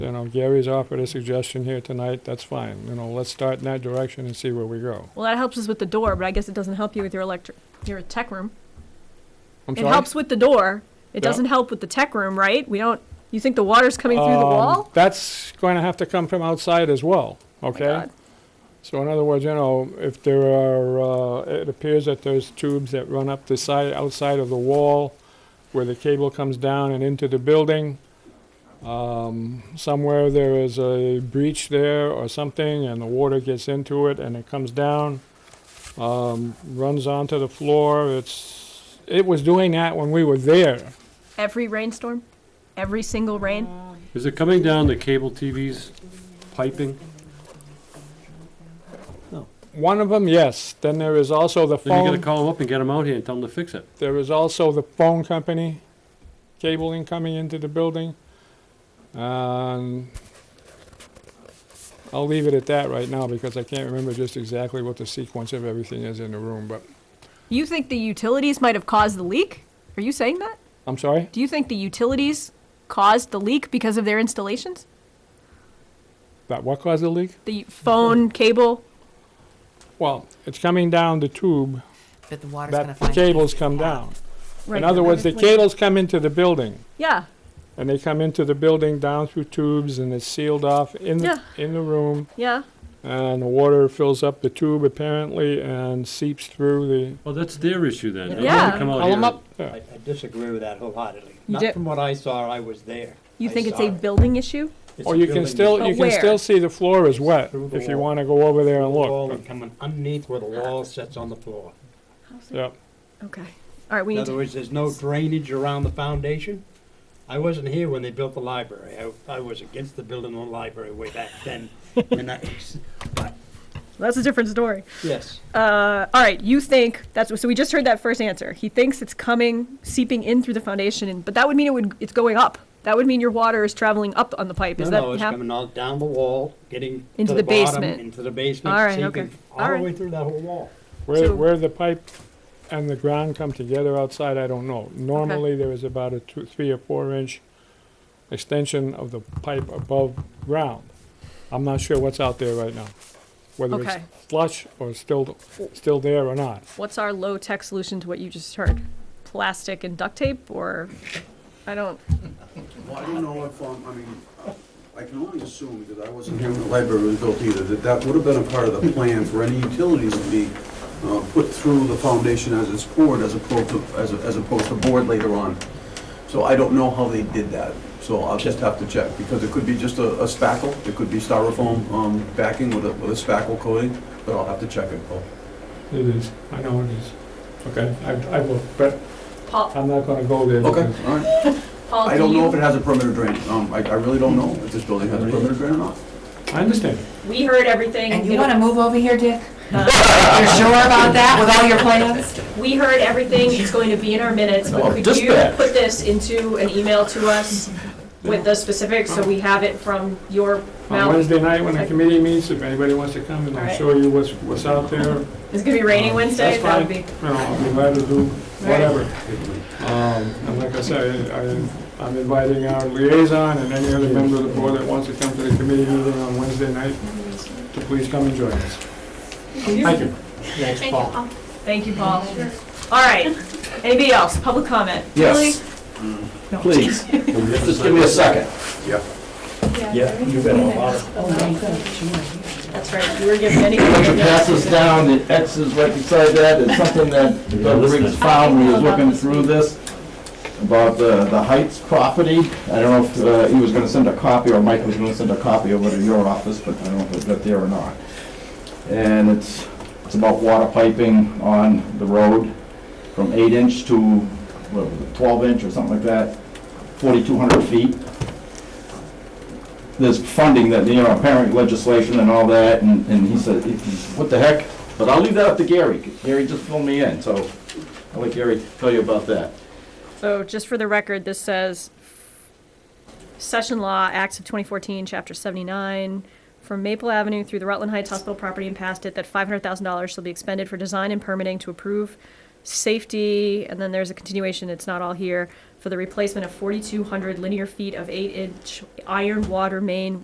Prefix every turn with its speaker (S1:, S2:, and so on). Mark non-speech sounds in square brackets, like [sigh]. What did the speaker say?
S1: You know, Gary's offered a suggestion here tonight, that's fine. You know, let's start in that direction and see where we go.
S2: Well, that helps us with the door, but I guess it doesn't help you with your electric, your tech room.
S1: I'm
S2: It
S1: sorry?
S2: helps with the door. It
S1: Yeah.
S2: doesn't help with the tech room, right? We don't. You think the water's coming through the
S1: Um,
S2: wall?
S1: That's going to have to come from outside as well,
S2: Oh my
S1: okay?
S2: God.
S1: So in other words, you know, if there are, uh, it appears that there's tubes that run up the side, outside of the wall where the cable comes down and into the building. Um, somewhere there is a breach there or something and the water gets into it and it comes down, um, runs onto the floor. It's, it was doing that when we were there.
S2: Every rainstorm, every single rain.
S3: Is it coming down the cable TV's piping?
S1: One of them, yes. Then there is also the
S3: Then you
S1: phone.
S3: gotta call them up and get them out here and tell them to fix it.
S1: There is also the phone company cabling coming into the building. Um, I'll leave it at that right now because I can't remember just exactly what the sequence of everything is in the room, but,
S2: You think the utilities might have caused the leak? Are you saying that?
S1: I'm sorry?
S2: Do you think the utilities caused the leak because of their installations?
S1: That what caused the leak?
S2: The
S1: [laughs]
S2: phone cable.
S1: Well, it's coming down the tube,
S4: But the water's gonna
S1: that
S4: find.
S1: cables come down.
S2: Right.
S1: In other words, the cables come into the building.
S2: yeah.
S1: And they come into the building down through tubes and it's sealed off in,
S2: Yeah.
S1: the in the room.
S2: Yeah.
S1: And the water fills up the tube apparently and seeps through the,
S3: Well, that's their issue then. They don't
S2: Yeah.
S3: wanna come out
S1: call them
S3: here.
S1: up. Yeah.
S5: I I disagree with that wholeheartedly.
S2: You
S5: Not
S2: did-
S5: from what I saw, I was there.
S2: You
S5: I
S2: think it's
S5: saw
S2: a
S5: it.
S2: building issue?
S5: It's
S1: Or
S5: a
S1: you can
S5: building
S1: still,
S2: But
S1: you can
S2: where?
S1: still see the floor is wet,
S5: Through the
S1: if you
S5: wall.
S1: wanna go over there and
S5: Wall
S1: look.
S5: and coming underneath where the wall sits on the floor.
S1: Yeah,
S2: Okay. All right. We
S5: In
S2: need.
S5: other
S2: To,
S5: words, there's no drainage around the foundation. I wasn't here when they built the library. I, I was against the building of the library way back then. And I, but,
S2: that's a different story.
S5: yes,
S2: Uh, all right, you think that's so? We just heard that first answer. He thinks it's coming, seeping in through the foundation, and, but that would mean it would it's going up. That would mean your water is traveling up on the pipe.
S5: no,
S2: Is
S5: no,
S2: that
S5: it's
S2: hap-
S5: coming all down the wall, getting to
S2: Into the
S5: the bottom,
S2: basement.
S5: into the basement.
S2: All right,
S5: sinking
S2: okay. All
S5: All
S2: right.
S5: the way through that whole wall.
S1: where,
S2: So-
S1: where the pipe and the ground come together outside, I don't know. Normally, there is about a two, three or four inch extension of the pipe above ground. I'm not sure what's out there right now, whether it's
S2: Okay.
S1: flush or still, still there or not.
S2: What's our low tech solution to what you just heard? Plastic and duct tape, or I don't.
S6: Well, I don't know if, um, I mean, I can only assume, because I wasn't here when the library was built either, that that would have been a part of the plan for any utilities to be uh, put through the foundation as it's poured as opposed to, as as opposed to board later on. So I don't know how they did that, so I'll just have to check, because it could be just a a spackle, it could be styrofoam um, backing with a, with a spackle coating, but I'll have to check it, Paul.
S1: It is, I know it is. Okay, I, I will, but
S2: Paul,
S1: I'm not gonna go there.
S6: Okay,
S1: because-
S6: all right.
S2: Paul,
S6: I
S2: do
S6: don't know if
S2: you,
S6: it has a perimeter drain, um, I, I really don't know if this building has a perimeter drain or not.
S1: I understand.
S2: we heard everything.
S4: And
S2: you
S4: you
S2: know,
S4: wanna move over here, [laughs] Dick? You're sure about that with all your plans?
S2: we heard everything. It's going to be in our minutes. But
S6: Oh,
S2: could you
S6: dispatch.
S2: put this into an email to us with the specifics so we have it from your
S1: On
S2: mouth?
S1: Wednesday night, when the committee meets, if anybody wants to come, and
S2: All
S1: I'll
S2: right.
S1: show you what's, what's out there.
S2: It's gonna be
S6: Um,
S2: raining Wednesday.
S1: That's
S2: That would
S1: fine.
S2: be.
S1: No, I'll be glad to do whatever.
S2: Right.
S1: Um, And like I said, I- I'm inviting our liaison and any other member of the board that wants to come to the committee meeting on Wednesday night to please come and join us. Thank you.
S5: Thanks, Paul.
S2: Thank you, Paul. All right. Anybody else? Public comment?
S6: Yes. Mm. Please, just give me a second.
S5: Yeah, you've been a lot of
S2: Really? That's right. You were given any.
S7: Once it passes down, it X's right beside that, it's something that Doug Riggs found when he was looking through this, about the, the Heights property. I don't know if uh, he was gonna send a copy, or Mike was gonna send a copy over to your office, but I don't know if it got there or not. And it's, it's about water piping on the road from eight inch to, what was it, twelve inch or something like that, forty-two hundred feet there's funding that, you know, apparent legislation and all that, and, and he said, he- he- what the heck? But I'll leave that up to Gary, Gary just filled me in, so I'll let Gary tell you about that.
S2: So just for the record, this says Session Law, Acts of 2014, Chapter 79, from Maple Avenue through the Rutland Heights Hospital property and past it, that $500,000 shall be expended for design and permitting to approve safety, and then there's a continuation, it's not all here, for the replacement of 4,200 linear feet of eight-inch iron water main